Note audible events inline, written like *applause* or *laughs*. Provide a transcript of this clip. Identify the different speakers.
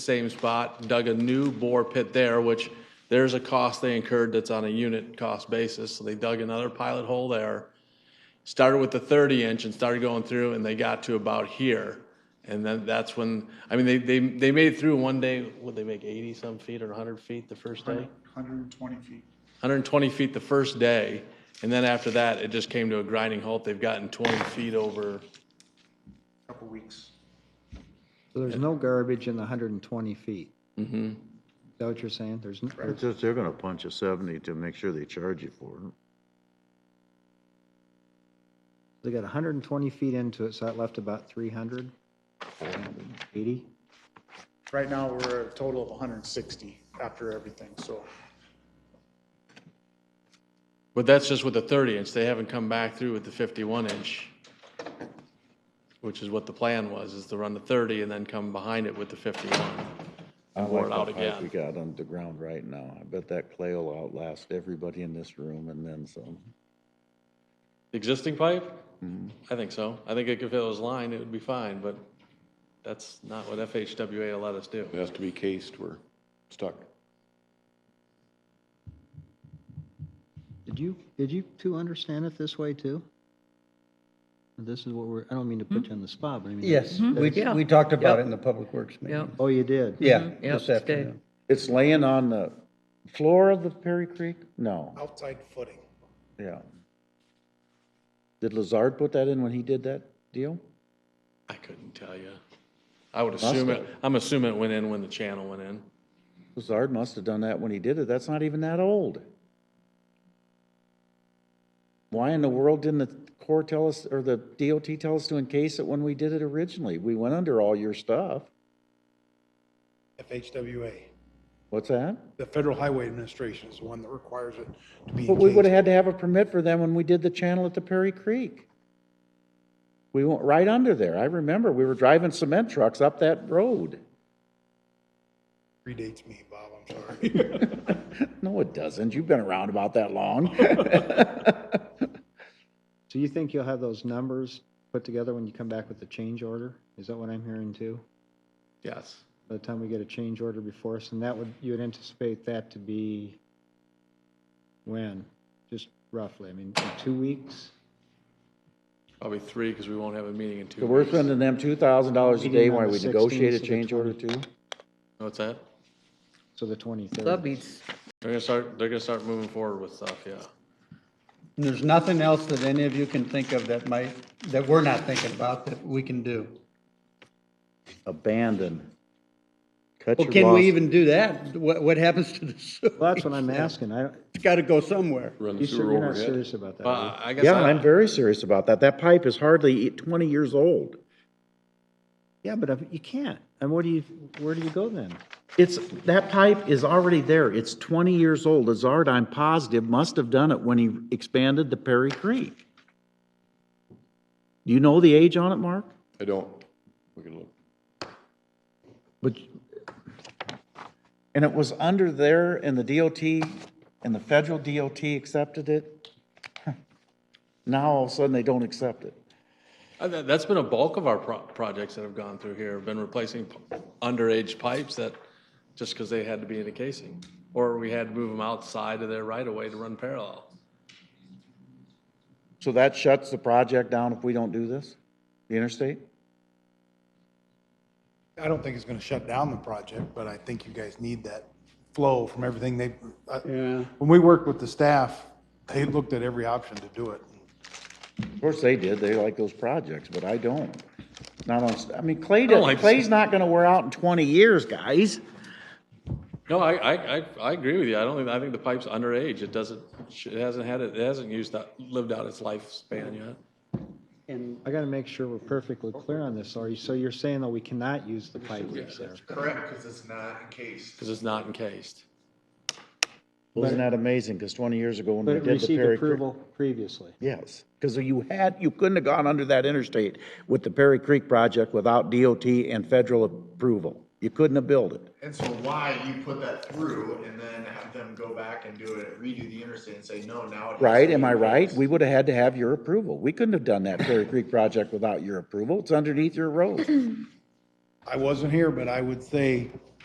Speaker 1: same spot, dug a new bore pit there, which there's a cost they incurred that's on a unit cost basis. So they dug another pilot hole there. Started with the 30 inch and started going through and they got to about here. And then that's when, I mean, they, they, they made it through one day, would they make 80 some feet or 100 feet the first day?
Speaker 2: 120 feet.
Speaker 1: 120 feet the first day. And then after that, it just came to a grinding halt. They've gotten 20 feet over,
Speaker 2: Couple weeks.
Speaker 3: So there's no garbage in the 120 feet? Mm-hmm. Is that what you're saying? There's, n-
Speaker 4: It's just, they're gonna punch a seventy to make sure they charge you for it.
Speaker 3: they got 120 feet into it, so that left about 300? 80?
Speaker 2: Right now, we're a total of 160 after everything, so
Speaker 1: but that's just with the 30 inch. They haven't come back through with the 51 inch. which is what the plan was, is to run the 30 and then come behind it with the 51.
Speaker 4: I
Speaker 1: Wore it
Speaker 4: like the
Speaker 1: out
Speaker 4: pipe
Speaker 1: again.
Speaker 4: we got on the ground right now. I bet that clay will outlast everybody in this room and then some.
Speaker 1: The Existing pipe?
Speaker 4: Mm-hmm.
Speaker 1: I think so. I think if it was lined, it would be fine, but that's not what FHWA will let us do.
Speaker 5: It has to be cased, we're stuck.
Speaker 3: Did you, did you two understand it this way too? This is what we're, I don't mean to put you on the spot, but I mean.
Speaker 6: Yes, we,
Speaker 7: Mm-hmm. Yeah.
Speaker 6: we talked about
Speaker 7: Yep. Mm-hmm.
Speaker 6: it in the Public Works meeting.
Speaker 7: Yeah,
Speaker 3: Oh, you did?
Speaker 6: Yeah,
Speaker 7: yeah,
Speaker 6: this afternoon.
Speaker 4: It's laying on the floor of the Perry Creek? No,
Speaker 2: outside footing.
Speaker 4: yeah. Did Lazard put that in when he did that deal?
Speaker 1: I couldn't tell you. I would assume it, I'm assuming it went in when the channel went in.
Speaker 4: Lazard must have done that when he did it. That's not even that old. Why in the world didn't the Corps tell us, or the DOT tell us to encase it when we did it originally? We went under all your stuff.
Speaker 8: FHWA.
Speaker 4: What's that?
Speaker 8: The Federal Highway Administration is the one that requires it to be.
Speaker 4: But we would have
Speaker 8: engaged.
Speaker 4: had to have a permit for them when we did the channel at the Perry Creek. We went right under there. I remember, we were driving cement trucks up that road.
Speaker 8: Predates me, Bob, I'm sorry.
Speaker 4: *laughs*
Speaker 8: *laughs*
Speaker 4: No, it doesn't. You've been around about that long. *laughs*
Speaker 3: So you think you'll have those numbers put together when you come back with the change order? Is that what I'm hearing too?
Speaker 1: Yes.
Speaker 3: By the time we get a change order before us, and that would, you would anticipate that to be when? Just roughly, I mean, in two weeks?
Speaker 1: Probably three, because we won't have a meeting in two
Speaker 4: So we're
Speaker 1: weeks.
Speaker 4: spending them two thousand dollars a day
Speaker 3: Meeting on
Speaker 4: while
Speaker 3: the
Speaker 4: we
Speaker 3: 16th
Speaker 4: negotiate
Speaker 3: to
Speaker 4: a
Speaker 3: the
Speaker 4: change order too?
Speaker 1: What's that?
Speaker 3: So the 23rd?
Speaker 7: That beats,
Speaker 1: They're gonna start, they're gonna start moving forward with stuff, yeah.
Speaker 4: Uh,
Speaker 6: And there's nothing else that any of you can think of that might, that we're not thinking about that we can do.
Speaker 4: Abandon. Cut
Speaker 6: Well,
Speaker 4: your
Speaker 6: can
Speaker 4: loss-
Speaker 6: we even do that? What, what happens to the sewer? *laughs*
Speaker 3: Well, that's what I'm asking. I, don't-
Speaker 6: It's gotta go somewhere.
Speaker 5: Run the
Speaker 3: you sure
Speaker 5: sewer
Speaker 3: you're not
Speaker 5: overhead.
Speaker 3: serious about that? are you?
Speaker 1: But I guess.
Speaker 4: Yeah,
Speaker 1: I-
Speaker 4: I'm very serious about that. That pipe is hardly e, twenty years old.
Speaker 3: Yeah, but if- you can't. And what do you, where do you go then?
Speaker 4: It's, that pipe is already there. It's 20 years old. Lazard, I'm positive, must have done it when he expanded the Perry Creek. Do you know the age on it, Mark?
Speaker 5: I don't, we can look.
Speaker 4: But, and it was under there and the DOT and the federal DOT accepted it? Now all of a sudden they don't accept it.
Speaker 1: Uh, that- That's been a bulk of our pro- projects that have gone through here, have been replacing p- underage pipes that, just because they had to be in a casing. Or we had to move them outside of their right of way to run parallel.
Speaker 4: So that shuts the project down if we don't do this? The interstate?
Speaker 8: I don't think it's gonna shut down the project, but I think you guys need that flow from everything they, I-
Speaker 6: Yeah.
Speaker 8: when we worked with the staff, they looked at every option to do it.
Speaker 4: Of course they did, they like those projects, but I don't. Not on, I mean, Clay,
Speaker 1: don't
Speaker 4: doesn't-
Speaker 1: like-
Speaker 4: Clay's not gonna wear out in twenty years, guys.
Speaker 1: No, I, I, I, I agree with you. I don't think, I think the pipe's underage. It doesn't, it hasn't had, it it hasn't used, that- lived out its lifespan yet.
Speaker 6: And
Speaker 3: I gotta make sure we're perfectly clear on this. Are you, so you're saying that we cannot use the pipe that's there?
Speaker 2: Correct, because it's not encased.
Speaker 1: Because it's not encased.
Speaker 4: Wasn't that amazing, cause twenty years ago when
Speaker 3: But
Speaker 4: we
Speaker 3: it
Speaker 4: did the
Speaker 3: received
Speaker 4: Perry Creek.
Speaker 3: approval previously.
Speaker 4: Yes, cause you had, you couldn't have gone under that interstate with the Perry Creek project without DOT and federal approval. You couldn't have built it.
Speaker 2: And so why you put that through and then have them go back and do it, redo the interstate and say, no, now it. has to
Speaker 4: Right,
Speaker 2: be
Speaker 4: am I right?
Speaker 2: encased."
Speaker 4: We would have had to have your approval. We couldn't have done that Perry Creek project without your approval. It's underneath your road.
Speaker 8: I wasn't here, but I would say